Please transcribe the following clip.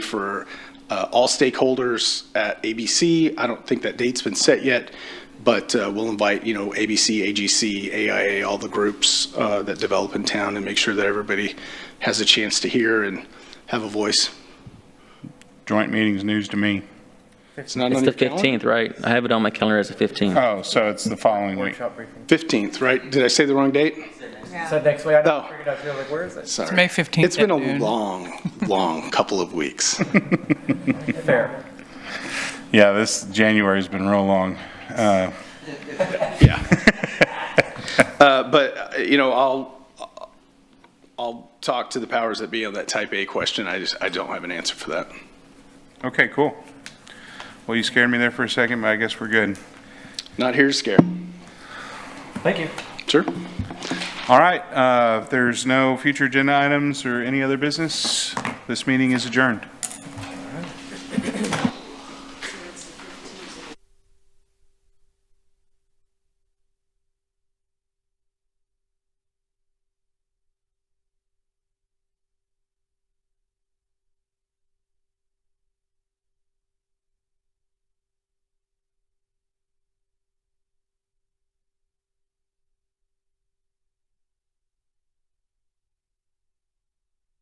for uh, all stakeholders at ABC. I don't think that date's been set yet, but uh, we'll invite, you know, ABC, AGC, AIA, all the groups uh, that develop in town and make sure that everybody has a chance to hear and have a voice. Joint meeting's news to me. It's not It's on the your calendar? 15th, right? I have it on my calendar as the 15th. Oh, so it's the following week. 15th, right? Did I say the wrong date? Said next week, I No. know, figured out, you're like, where is it? Sorry. May 15th It's been at a noon. long, long couple of weeks. Fair. Yeah, this January's been real long. Uh, Yeah. Uh, But, uh, you know, I'll, I'll talk to the powers that be on that type A question. I just, I don't have an answer for that. Okay, cool. Well, you scared me there for a second, but I guess we're good. Not here to scare. Thank you. Sure. All right, uh, if there's no future agenda items or any other business, this meeting is adjourned.